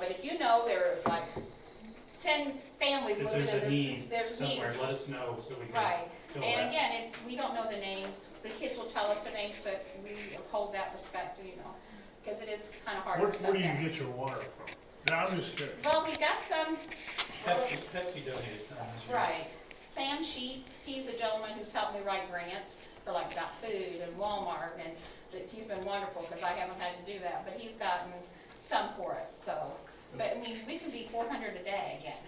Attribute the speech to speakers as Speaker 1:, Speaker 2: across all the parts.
Speaker 1: but if you know there's like ten families
Speaker 2: If
Speaker 1: living in
Speaker 2: there's a
Speaker 1: this,
Speaker 2: need
Speaker 1: there's need.
Speaker 2: somewhere, let us know so we can
Speaker 1: Right,
Speaker 2: fill
Speaker 1: and
Speaker 2: that.
Speaker 1: again, it's, we don't know the names, the kids will tell us their names, but we hold that respect, you know, because it is kind of hard
Speaker 3: Where,
Speaker 1: for some
Speaker 3: where do you
Speaker 1: families.
Speaker 3: get your water from? No, I'm just kidding.
Speaker 1: Well, we got some,
Speaker 2: Pepsi, Pepsi donated some. this year.
Speaker 1: right, Sam Sheets, he's a gentleman who's helped me write grants for like Dot Food and Walmart, and that- he's been wonderful, because I haven't had to do that, but he's gotten some for us, so. But I mean, we can be four hundred a day again.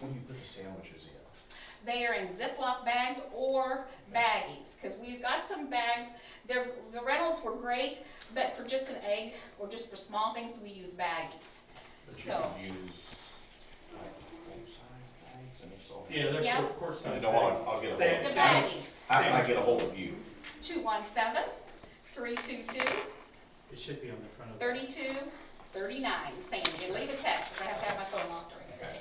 Speaker 4: When you put the sandwiches in,
Speaker 1: They are in Ziploc bags or baggies, because we've got some bags, they're, the rentals were great, but for just an egg or just for small things, we use baggies.
Speaker 4: but you
Speaker 1: So-
Speaker 4: can use, like, full-size bags, and it's all.
Speaker 2: Yeah, they're
Speaker 1: Yeah.
Speaker 2: quart- quart size.
Speaker 4: No, I'll- I'll get a
Speaker 2: Sam-
Speaker 1: The
Speaker 4: box.
Speaker 2: Sam-
Speaker 1: baggies,
Speaker 4: How can I get a hold of you?
Speaker 1: 217 322
Speaker 2: It should be on the front of. the-
Speaker 1: 3239 Sam, you leave a text, because I have to have my phone off during the day.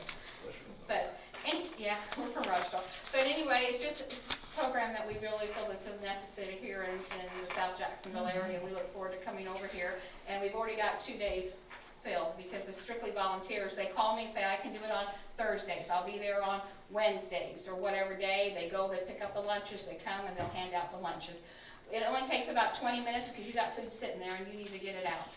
Speaker 1: But, and, yeah, we're from Rushville. But anyway, it's just, it's a program that we really feel that's necessary here in, in the South Jacksonville area. We look forward to coming over here, and we've already got two days filled because it's strictly volunteers. They call me and say, I can do it on Thursdays, I'll be there on Wednesdays, or whatever day. They go, they pick up the lunches, they come, and they'll hand out the lunches. It only takes about twenty minutes because you got food sitting there and you need to get it out.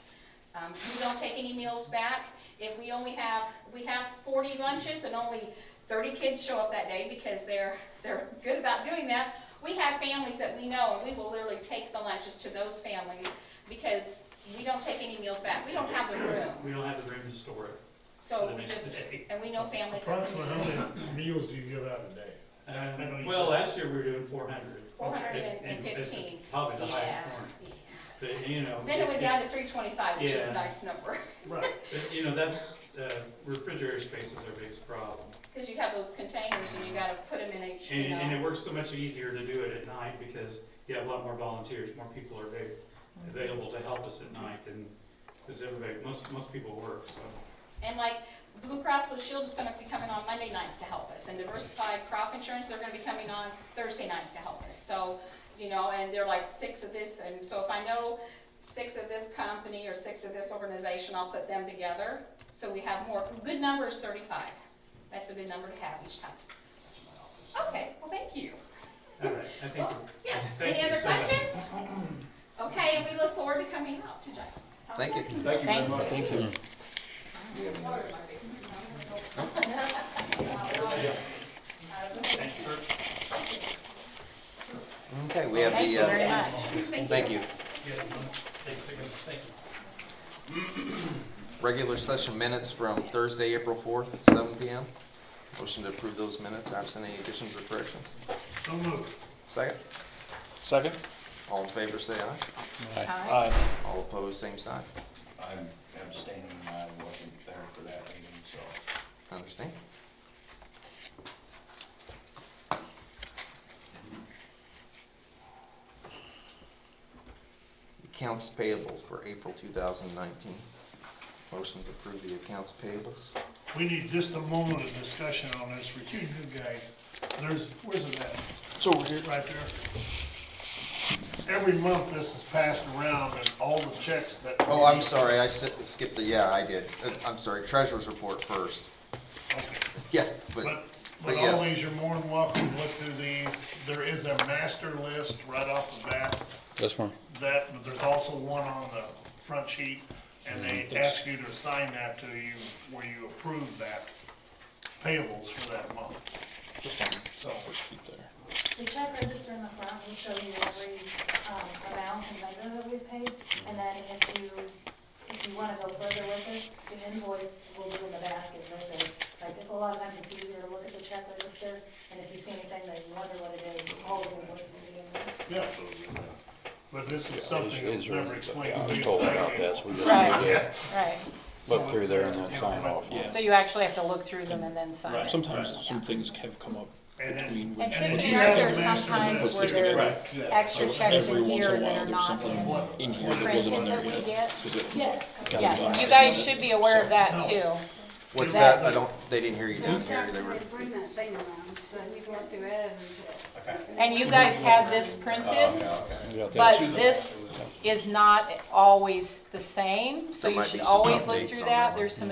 Speaker 1: Um, we don't take any meals back. If we only have, we have forty lunches and only thirty kids show up that day because they're, they're good about doing that. We have families that we know and we will literally take the lunches to those families because we don't take any meals back. We don't have the room.
Speaker 2: We don't have the room to store it for
Speaker 1: So
Speaker 2: the
Speaker 1: we
Speaker 2: next
Speaker 1: just,
Speaker 2: day.
Speaker 1: and we know families that can
Speaker 3: Approximately
Speaker 1: use it.
Speaker 3: how many meals do you give out a day? I know
Speaker 2: Um,
Speaker 3: you
Speaker 2: Well,
Speaker 3: said-
Speaker 2: last year we were doing four hundred.
Speaker 1: 415.
Speaker 2: Probably the
Speaker 1: Yeah,
Speaker 2: highest point,
Speaker 1: yeah.
Speaker 2: but you know.
Speaker 1: Then it
Speaker 2: if-
Speaker 1: went down to three twenty-five, which is a
Speaker 2: Yeah.
Speaker 1: nice number,
Speaker 3: Right.
Speaker 2: But, You know, that's, uh, refrigerator space is our biggest problem.
Speaker 1: because you have those containers and you gotta put them in each, you
Speaker 2: And, and
Speaker 1: know.
Speaker 2: it works so much easier to do it at night because you have a lot more volunteers, more people are there,
Speaker 1: Mm-hmm.
Speaker 2: available to help us at night than, because everybody, most, most people work, so.
Speaker 1: And like Blue Cross Blue Shield is gonna be coming on Monday nights to help us, and Diversified Crop Insurance, they're gonna be coming on Thursday nights to help us. So, you know, and they're like six of this, and so if I know six of this company or six of this organization, I'll put them together. So we have more, good number is thirty-five. That's a good number to have each time. Okay, well, thank you.
Speaker 2: All right, I think,
Speaker 1: Well, Yes,
Speaker 2: Thank
Speaker 1: any
Speaker 2: you
Speaker 1: other
Speaker 2: so much.
Speaker 1: questions? Okay, and we look forward to coming out to Jackson. South
Speaker 4: Thank you.
Speaker 1: Jacksonville.
Speaker 4: Thank you very
Speaker 5: Thank
Speaker 4: much. Thank you.
Speaker 1: Water in my basement, so I'm gonna go. Uh, this is-
Speaker 5: Okay, we have the.
Speaker 1: Thank you very
Speaker 5: uh,
Speaker 1: much.
Speaker 5: Thank you.
Speaker 2: thank you.
Speaker 5: Regular session minutes from Thursday, April 4th, 7 PM. Motion to approve those minutes, absent any additions or corrections.
Speaker 3: So moved.
Speaker 5: Second,
Speaker 6: Second?
Speaker 5: all in favor, say aye.
Speaker 1: Hi.
Speaker 5: All opposed, same sign.
Speaker 4: I'm abstaining, I wasn't there for that meeting, so.
Speaker 5: Understand? Accounts payable for April 2019. Motion to approve the accounts payables.
Speaker 3: We need just a moment of discussion on this, with you new guys. There's, where's it at?
Speaker 6: So over here.
Speaker 3: Right there. Every month this is passed around and all the checks that.
Speaker 5: Oh, I'm sorry, I si- skipped the, yeah, I did. Uh, I'm sorry, treasurer's report first.
Speaker 3: Okay.
Speaker 5: Yeah,
Speaker 3: But,
Speaker 5: but, but
Speaker 3: but always,
Speaker 5: yes,
Speaker 3: you're more than welcome to look through these. There is a master list right off the bat.
Speaker 6: Yes, ma'am.
Speaker 3: that, but there's also one on the front sheet, and they
Speaker 6: Mm-hmm.
Speaker 3: ask you to assign that to you, where you approve that payables for that month. So,
Speaker 7: The check register in the front will show you every um, amount and vendor that we've paid, and then if you, if you want to go further with it, the invoice will be in the basket with it. Like, it's a lot of times it's easier to look at the check register, and if you see anything that you wonder what it is, all of the invoices will be in there.
Speaker 3: yeah. But this is something
Speaker 6: Is-
Speaker 3: that's
Speaker 6: is
Speaker 3: never
Speaker 6: right,
Speaker 3: explained.
Speaker 6: yeah,
Speaker 3: to
Speaker 6: I'm
Speaker 3: you.
Speaker 6: told about this, we just
Speaker 8: Right.
Speaker 6: need to
Speaker 8: Right,
Speaker 6: look through there and then sign off,
Speaker 8: so
Speaker 6: yeah.
Speaker 8: you actually have to look through them and then sign it.
Speaker 6: Sometimes some things have come up
Speaker 3: And then-
Speaker 6: between. when-
Speaker 8: And typically,
Speaker 3: you
Speaker 8: aren't
Speaker 3: have
Speaker 8: there
Speaker 3: to master
Speaker 8: sometimes
Speaker 3: this.
Speaker 8: where there's
Speaker 3: Right, yeah.
Speaker 8: extra checks
Speaker 6: Every
Speaker 8: in
Speaker 6: once
Speaker 8: here
Speaker 6: in a while,
Speaker 8: that are
Speaker 6: there's
Speaker 8: not in
Speaker 6: something in here that wasn't in
Speaker 8: printed
Speaker 6: there
Speaker 8: that we
Speaker 6: yet.
Speaker 8: get?
Speaker 6: 'cause it was
Speaker 7: Yes.
Speaker 6: like-
Speaker 8: Yes, you guys should be aware of that
Speaker 3: No.
Speaker 8: too.
Speaker 5: what's that? I don't, they didn't hear you down there, they were,
Speaker 9: They bring that thing around, but you go through everything.
Speaker 8: And you guys had this
Speaker 4: Oh,
Speaker 8: printed, but this is not always the same, so
Speaker 5: There
Speaker 8: you
Speaker 5: might
Speaker 8: should
Speaker 5: be some
Speaker 8: always look
Speaker 5: updates
Speaker 8: through
Speaker 5: on that
Speaker 8: that.
Speaker 5: one.
Speaker 8: There's some